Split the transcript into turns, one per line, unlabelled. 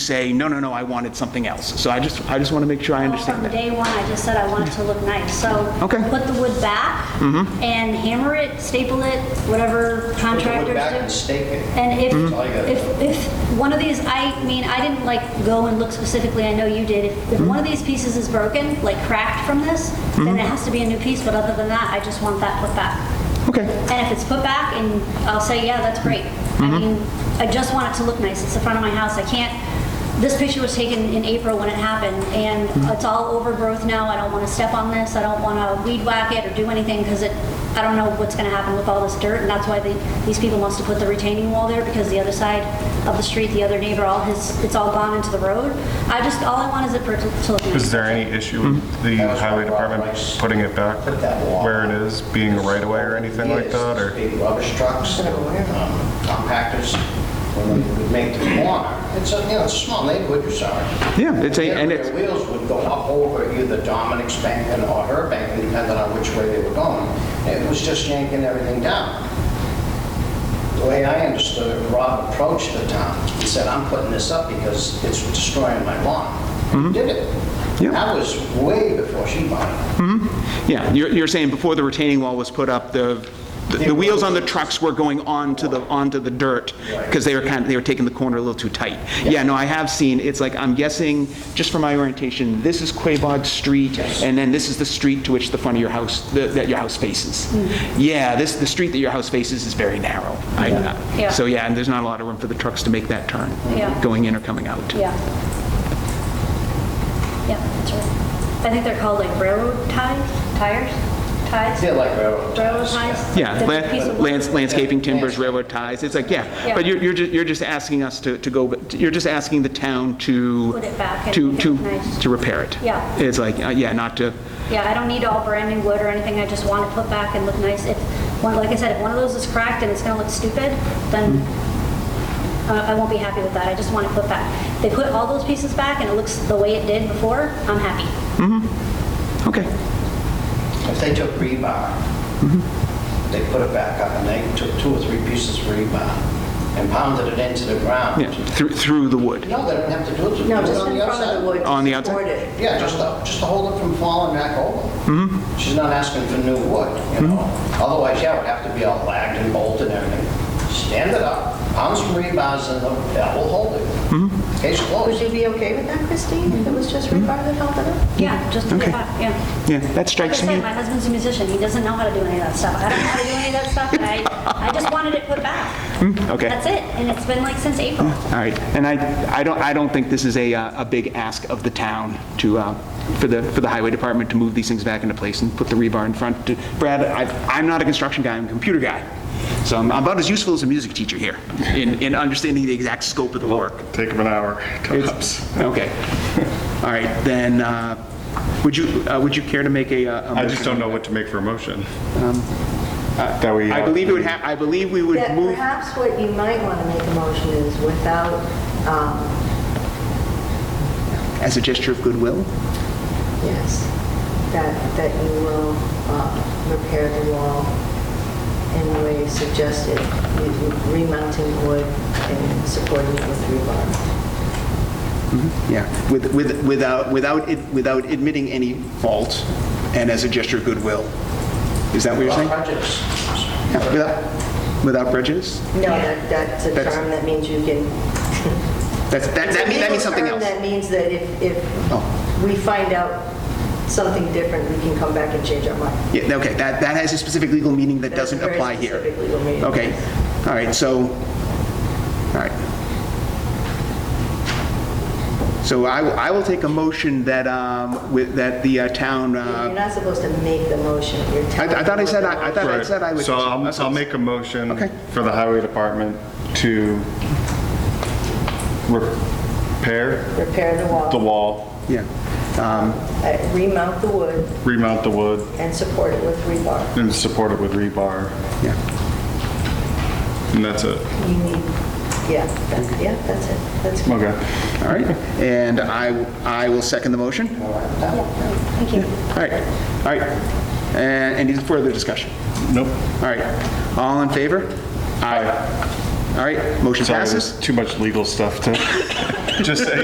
say, no, no, no, I wanted something else. So I just, I just want to make sure I understand that.
From day one, I just said I want it to look nice, so.
Okay. Mm-hmm.
Put the wood back. And hammer it, staple it, whatever contractors do.
back and stake it.
And if,
Mm-hmm.
all you gotta
if, if one of these, I mean, I didn't like go and look specifically, I know you did. If- If one
Mm-hmm.
of these pieces is broken, like cracked from this, then it has to be a new piece, but other than that, I just want that put back.
Okay,
And if it's put back, and I'll say, yeah, that's great. I mean, I just want it to look nice. It's the front of my house. I can't, this picture was taken in April when it happened, and it's all overgrowth now. I don't want to step on this. I don't want to weed whack it or do anything, because it, I don't know what's going to happen with all this dirt, and that's why the- these people wants to put the retaining wall there, because the other side of the street, the other neighbor, all his, it's all gone into the road. I just, all I want is it for it to to look nice.
Is there any issue
Hmm?
with the
That was
highway
Rob
department
Rice.
putting it back
Put that wall.
where it is, being a right-of-way or anything like
Yes,
that, or?
Big rubbish trucks, um, compactors, when they would make the corner, it's a, you know, it's a small neighborhood, you're sorry.
Yeah, it's a- and it's-
Their wheels would go up over either Dominic's bank and or her bank, depending on which way they were going. It was just yanking everything down. The way I understood it, Rob approached the town, he said, I'm putting this up because it's destroying my lawn.
Mm-hmm.
He Did it.
Yeah.
That was way before she bought it.
yeah, you're, you're saying before the retaining wall was put up, the, the- the wheels on the trucks were going onto the, onto the dirt because they were kind of, they were taking the corner a little too tight. Yeah, no, I have seen, it's like, I'm guessing, just for my orientation, this is Quabog Street and then this is the street to which the front of your house, the- that your house faces. Yeah, this, the street that your house faces is very narrow. I-
Hmm.
uh,
Yeah.
So yeah, and there's not a lot of room for the trucks to make that turn,
Yeah.
going in or coming out.
Yeah. Yeah, that's right. I think they're called like railroad ties, tires, ties?
Yeah, like uh, railroad
Railroad
ties,
ties?
Yeah,
That's a
lan-
piece of wood.
lands- landscaping, timbers, railroad ties, it's like, yeah,
Yeah.
but you're, you're ju- you're just asking us to to go, you're just asking the town to...
Put it back and
To,
make it
to,
nice.
to repair it.
Yeah.
It's like, uh, yeah, not to,
Yeah, I don't need all brand new wood or anything, I just want it put back and look nice. If, one, like I said, if one of those is cracked and it's gonna look stupid, then
Mm-hmm.
uh, I won't be happy with that, I just want it put back. They put all those pieces back and it looks the way it did before, I'm happy.
okay,
If they took rebar,
Mm-hmm.
they put it back up and they took two or three pieces of rebar and pounded it into the ground.
yeah, through, through the wood.
No, they don't have to do it.
No,
It's
just
on
in
the
front of the wood.
outside.
On the
to support
outside?
it.
Yeah, just to, just to hold it from falling back
Mm-hmm.
over. She's not asking for new wood, you know? Otherwise, yeah, it would have to be all lagged and bolted and everything. Stand it up, pound some rebars in them, that will hold it.
Mm-hmm.
Case
Would
closed.
you be okay with that, Christine, if it was just rebar that held it up?
Yeah, just put
Okay.
it back, yeah.
Yeah, that
Like I
strikes me.
said, my husband's a musician, he doesn't know how to do any of that stuff. I don't know how to do any of that stuff, and I, I just wanted it put back.
Hmm, okay.
That's it, and it's been like since April.
All right, and I, I don't, I don't think this is a, uh, a big ask of the town to, uh, for the, for the highway department to move these things back into place and put the rebar in front. To- Brad, I, I'm not a construction guy, I'm a computer guy, so I'm about as useful as a music teacher here in, in understanding the exact scope of the work.
Take them an hour, tops.
Okay, all right, then, uh, would you, uh, would you care to make a? uh, a
I just
motion?
don't know what to make for a motion. That we.
Um,
uh,
I believe it would have, I believe we would
That
move.
perhaps what you might want to make a motion is without, um,
As a gesture of goodwill?
yes, that, that you will uh, repair the wall in the way you suggested, you- remounting wood and supporting it with rebar.
Yeah, with, with, without, without, it- without admitting any fault and as a gesture of goodwill. Is that what you're saying?
Uh-huh.
Prejudice.
Yeah, Without, without prejudice?
No, that, that's a
That's-
term that means you can.
That's, that, that means, that means
It's a
something
legal term
else.
That means that if,
Oh.
if we find out something different, we can come back and change our mind.
Yeah, okay, that, that has a specific legal meaning that
That's a
doesn't
very
apply here.
specific legal meaning,
Okay, all right, so, all right. So I, will- I will take a motion that, um, with, that the uh, town,
You're
uh,
not supposed to make the motion, you're telling.
I- I thought I
them
said
what
I- I
the
thought-
Right.
said I would-
So I'll, I'll make a motion
Okay.
for the highway department to repair
motion- Repair the
the
wall,
wall,
yeah,
uh, remount the wood,
remount the wood,
and support it with rebar.
and support it with rebar,
yeah,
and that's it.
You need, yeah, that- yeah, that's it, that's good.
Okay.
all right. And I, I will second the motion.
Thank you.
All right, all right. And any further discussion?
Nope.
All right, all in favor? Aye. All right, motion
Sorry,
passes.
there's too much legal stuff to just,